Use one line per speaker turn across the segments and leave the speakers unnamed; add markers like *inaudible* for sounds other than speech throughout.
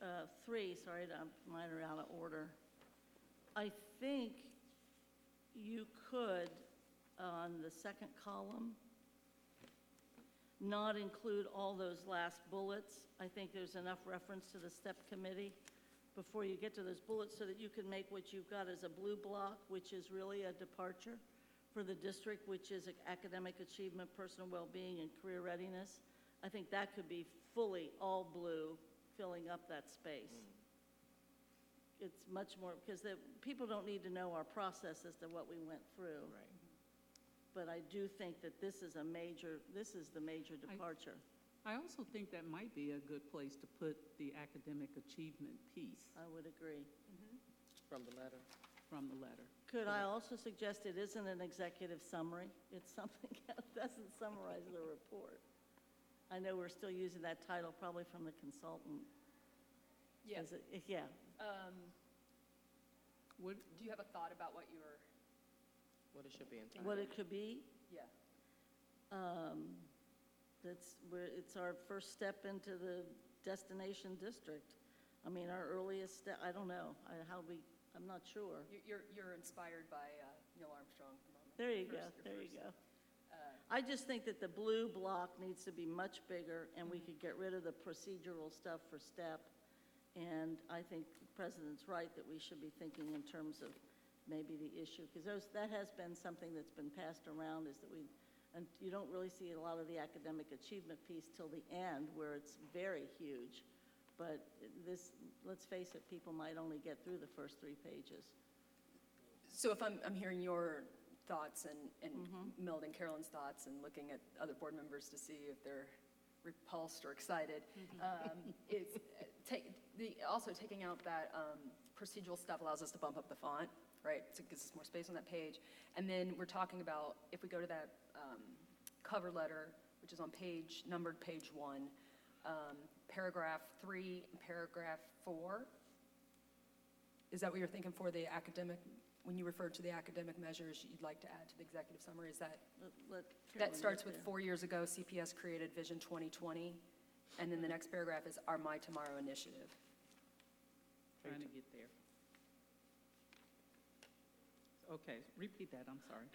Uh, three, sorry, that mine are out of order. I think you could, on the second column, not include all those last bullets. I think there's enough reference to the STEP committee before you get to those bullets so that you can make what you've got as a blue block, which is really a departure for the district, which is academic achievement, personal well-being, and career readiness. I think that could be fully all blue, filling up that space. It's much more, because the, people don't need to know our process as to what we went through.
Right.
But I do think that this is a major, this is the major departure.
I also think that might be a good place to put the academic achievement piece
I would agree.
From the letter.
from the letter.
Could I also suggest it isn't an executive summary? It's *laughs* something that doesn't summarize the report. I know we're still using that title probably from the consultant.
Yes.
Is it- Yeah,
Um,
What,
do you have a thought about what you were,
What it should be in.
what it could be,
yeah,
um, that's where, it's our first step into the destination district. I mean, our earliest step, I don't know, I- how we, I'm not sure.
You- you're, you're inspired by uh, Neil Armstrong at the moment?
There you go,
First- your
there you
first,
go.
uh,
I just think that the blue block needs to be much bigger, and we could get rid of the procedural stuff for STEP. And I think the president's right that we should be thinking in terms of maybe the issue, because those, that has been something that's been passed around, is that we, and you don't really see a lot of the academic achievement piece till the end, where it's very huge. But this, let's face it, people might only get through the first three pages.
So if I'm, I'm hearing your thoughts and, and Meld and Carolyn's thoughts and looking at other board members to see if they're repulsed or excited, um, it's, uh, take, the, also taking out that um, procedural stuff allows us to bump up the font, right? So it gives us more space on that page. And then we're talking about, if we go to that um, cover letter, which is on page, numbered page one, um, paragraph three, and paragraph four, is that what you're thinking for the academic, when you refer to the academic measures you'd like to add to the executive summary? Is that,
Let- let Carolyn
that
get
starts with
there.
four years ago, CPS created Vision 2020, and then the next paragraph is our My Tomorrow initiative.
trying to get there. Okay, repeat that, I'm sorry.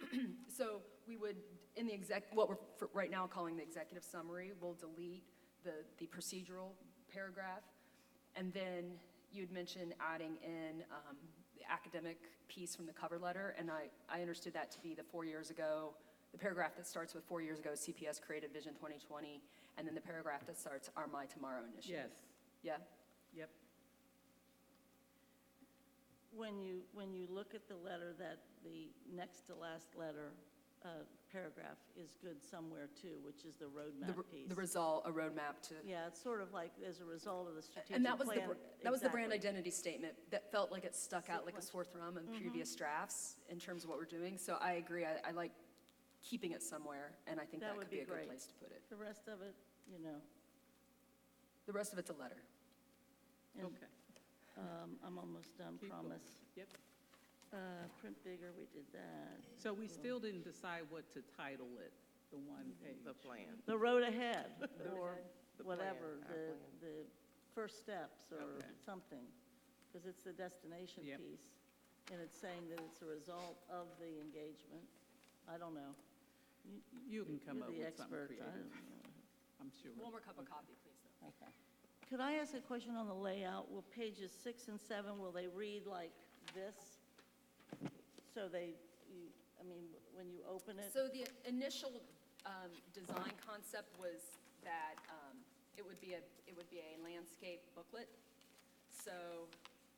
So we would, in the exec, what we're for- right now calling the executive summary, we'll delete the, the procedural paragraph. And then you'd mentioned adding in um, the academic piece from the cover letter. And I, I understood that to be the four years ago, the paragraph that starts with four years ago, CPS created Vision 2020, and then the paragraph that starts our My Tomorrow initiative.
Yes,
Yeah?
yep.
When you, when you look at the letter, that, the next to last letter, uh, paragraph is good somewhere too, which is the
The
roadmap
re- The
piece.
result, a roadmap to
Yeah, it's sort of like as a result of the strategic plan.
And that was the, br- that was the brand
Exactly. Mm-hmm.
identity statement that felt like it stuck out like a sore thumb in previous drafts in terms of what we're doing. So I agree, I, I like keeping it somewhere, and I think
That
that
would
could be
be
a good
great.
place to put it.
The rest of it, you know,
The rest of it's a letter.
and
Okay,
um, I'm almost done,
Keep going.
promise.
yep.
Uh, Print bigger, we did that.
So we still didn't decide what to title it, the one
The
page.
plan.
The road ahead, or
The plan,
whatever,
our
the,
plan.
the first steps or
Okay.
something, because it's the destination
Yep.
piece, and it's saying that it's a result of the engagement. I don't know. You-
You can come
you're the
up with something
expert. I
creative,
don't know.
I'm sure.
One more cup of coffee, please, though.
Okay. Could I ask a question on the layout? Will pages six and seven, will they read like this? So they, you, I mean, when you open it?
So the initial um, design concept was that um, it would be a, it would be a landscape booklet, so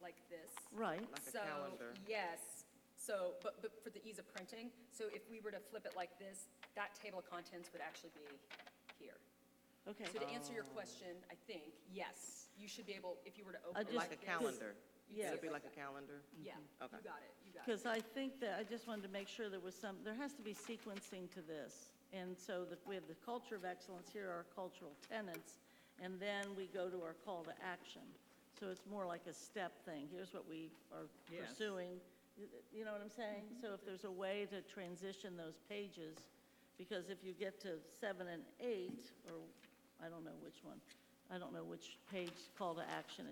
like this.
Right,
Like a
So,
calendar.
yes, so, but, but for the ease of printing, so if we were to flip it like this, that table of contents would actually be here.
okay.
So to answer your question, I think, yes, you should be able, if you were to
I
open it
just-
like this.
Like a calendar.
you'd see
Yeah.
It'd
it
be
like
like a calendar.
that. Yeah,
Okay.
you got it, you got it.
Because I think that, I just wanted to make sure there was some, there has to be sequencing to this. And so that we have the culture of excellence, here are our cultural tenets, and then we go to our call to action. So it's more like a step thing, here's what we are
Yes.
pursuing, You- you know what I'm saying? So if there's a way to transition those pages, because if you get to seven and eight, or I don't know which one, I don't know which page call to action